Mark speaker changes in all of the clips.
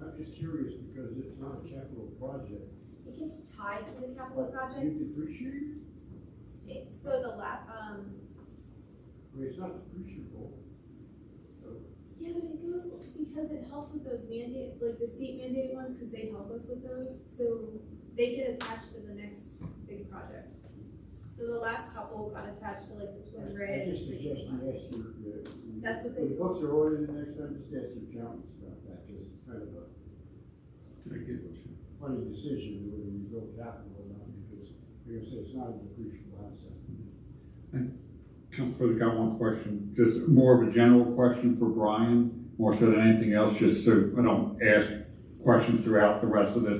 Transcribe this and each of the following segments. Speaker 1: I'm just curious because it's not a capital project.
Speaker 2: It gets tied to the capital
Speaker 1: But
Speaker 2: project,
Speaker 1: You depreciate,
Speaker 2: it, so the la, um,
Speaker 1: I mean, it's not depreciable. So,
Speaker 2: yeah, but it goes, because it helps with those mandate, like the state mandated ones, cause they help us with those, so they get attached to the next big project. So the last couple got attached to like the Twin
Speaker 1: I
Speaker 2: Bridge,
Speaker 1: just
Speaker 2: the
Speaker 1: suggest
Speaker 2: East
Speaker 1: you
Speaker 2: ones.
Speaker 1: ask your, uh.
Speaker 2: That's what they
Speaker 1: when The
Speaker 2: do.
Speaker 1: books are ordered the next time, just ask your accountants about that, because it's kind of a
Speaker 3: Very good.
Speaker 1: funny decision whether you build capital or not, because you're gonna say it's not a depreciable asset.
Speaker 3: Councilor, got one question, just more of a general question for Brian, more so than anything else, just so I don't ask questions throughout the rest of this.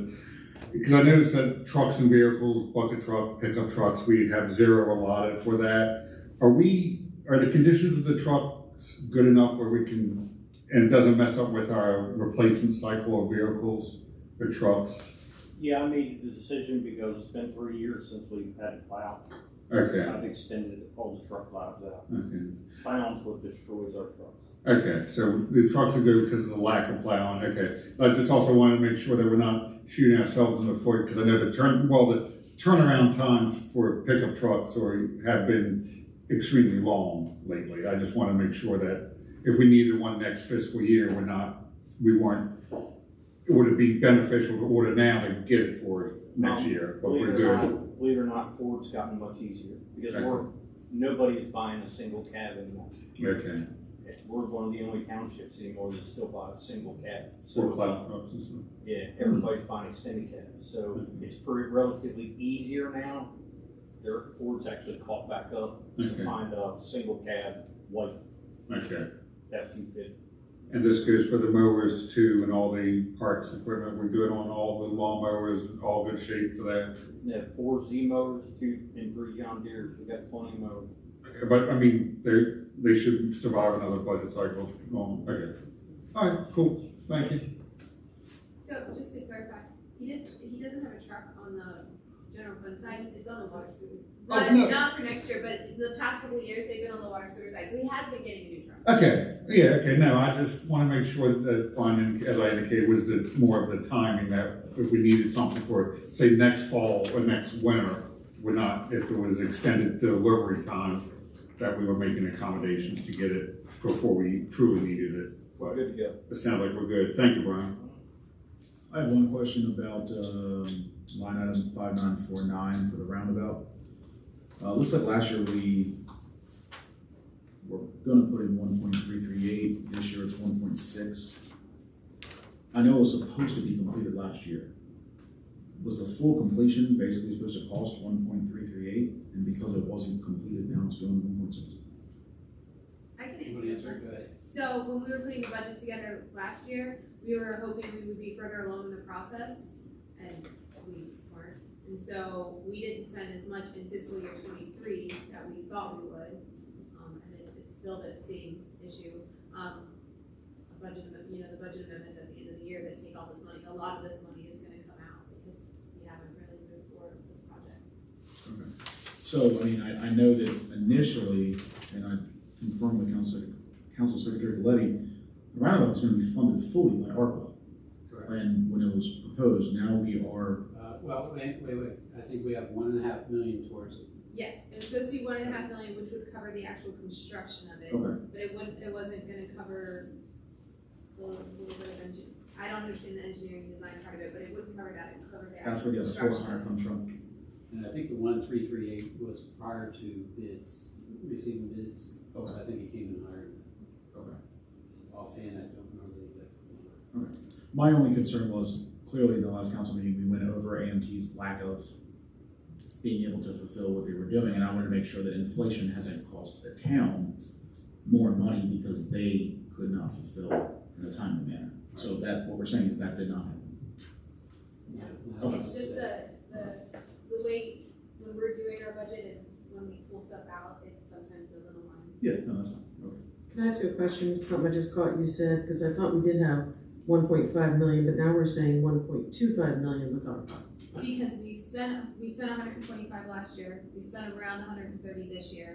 Speaker 3: Because I noticed that trucks and vehicles, bucket truck, pickup trucks, we have zero allotted for that. Are we, are the conditions of the trucks good enough where we can, and it doesn't mess up with our replacement cycle of vehicles or trucks?
Speaker 4: Yeah, I made the decision because it's been three years since we've had a plow.
Speaker 3: Okay,
Speaker 4: I've extended all the truck lives out.
Speaker 3: okay.
Speaker 4: Plowing's what destroys our trucks.
Speaker 3: Okay, so the trucks are good because of the lack of plowing, okay. So I just also wanted to make sure that we're not shooting ourselves in the foot, because I know the turn, well, the turnaround times for pickup trucks or have been extremely long lately. I just want to make sure that if we needed one next fiscal year, we're not, we weren't, it would be beneficial to order now to get it for next
Speaker 4: Um,
Speaker 3: year, but
Speaker 4: Believe
Speaker 3: we're
Speaker 4: it or
Speaker 3: Oh, good.
Speaker 4: not, believe it or not, Ford's gotten much easier because
Speaker 3: Okay.
Speaker 4: we're, nobody is buying a single cab anymore.
Speaker 3: Okay,
Speaker 4: We're one of the only townships anymore that still buy a single cab.
Speaker 3: for
Speaker 4: So,
Speaker 3: plow trucks and stuff.
Speaker 4: yeah, everybody's buying extended cabs. So it's pretty relatively easier now. Their, Ford's actually caught back up to
Speaker 3: Okay,
Speaker 4: find a single cab, white,
Speaker 3: okay.
Speaker 4: that can fit
Speaker 3: And this goes for the mowers too and all the parks equipment. We're good on all the lawn mowers, all good shape for that.
Speaker 4: We have four Z motors, two and three John Deere, we got plenty more.
Speaker 3: But I mean, they, they should survive another budget cycle. Um, okay. All right, cool. Thank you.
Speaker 5: So just to clarify, he didn't, he doesn't have a truck on the general fund side, it's on the water sewer. Not,
Speaker 3: no.
Speaker 5: not for next year, but the past couple of years, they've been on the water sewer side, so he has been getting a new truck.
Speaker 3: Okay, yeah, okay, no, I just want to make sure that, Brian, as I indicated, was the, more of the timing that if we needed something for, say, next fall or next winter, we're not, if it was extended delivery time, that we were making accommodations to get it before we truly needed it.
Speaker 4: We're
Speaker 3: But
Speaker 4: good to go.
Speaker 3: it sounds like we're good. Thank you, Brian.
Speaker 6: I have one question about, um, line item five nine four nine for the roundabout. Uh, looks like last year we were gonna put in one point three three eight, this year it's one point six. I know it was supposed to be completed last year. Was the full completion basically supposed to cost one point three three eight, and because it wasn't completed, now it's going to one point six?
Speaker 5: I can answer that. So when we were putting the budget together last year, we were hoping we would be further along in the process, and we weren't. And so we didn't spend as much in fiscal year twenty-three that we thought we would, um, and it- it's still that same issue. Um, a budget, amendment- you know, the budget amendments at the end of the year that take all this money, a lot of this money is gonna come out because we haven't really moved forward with this project.
Speaker 6: So, I mean, I, I know that initially, and I confirmed with Council, Council Secretary Galletti, the roundabout was gonna be funded fully by ARPA.
Speaker 7: Correct.
Speaker 6: And when it was proposed, now we are,
Speaker 7: Uh, well, wait, wait, wait, I think we have one and a half million towards it.
Speaker 5: Yes, it was supposed to be one and a half million, which would cover the actual construction of it.
Speaker 6: okay,
Speaker 5: But it wouldn't, it wasn't gonna cover the little bit of engine, I don't understand the engineering design part of it, but it wouldn't cover that, it would cover the
Speaker 6: that's
Speaker 5: actual
Speaker 6: where the other four
Speaker 5: construction.
Speaker 6: hundred comes from.
Speaker 7: And I think the one three three eight was prior to bids, receiving bids, but
Speaker 6: Okay,
Speaker 7: I think it came in higher.
Speaker 6: okay.
Speaker 7: Offhand, I don't remember the exact number.
Speaker 6: My only concern was clearly in the last council meeting, we went over AMT's lack of being able to fulfill what they were doing, and I wanted to make sure that inflation hasn't cost the town more money because they could not fulfill in a timely manner. So that, what we're saying is that did not happen.
Speaker 7: Yeah.
Speaker 6: Okay.
Speaker 5: It's just the, the, the way, when we're doing our budget and when we pull stuff out, it sometimes doesn't align.
Speaker 6: Yeah, no, that's fine, okay.
Speaker 8: Can I ask you a question? Something I just caught you said, because I thought we did have one point five million, but now we're saying one point two five million with our.
Speaker 5: Because we spent, we spent hundred and twenty-five last year, we spent around hundred and thirty this year,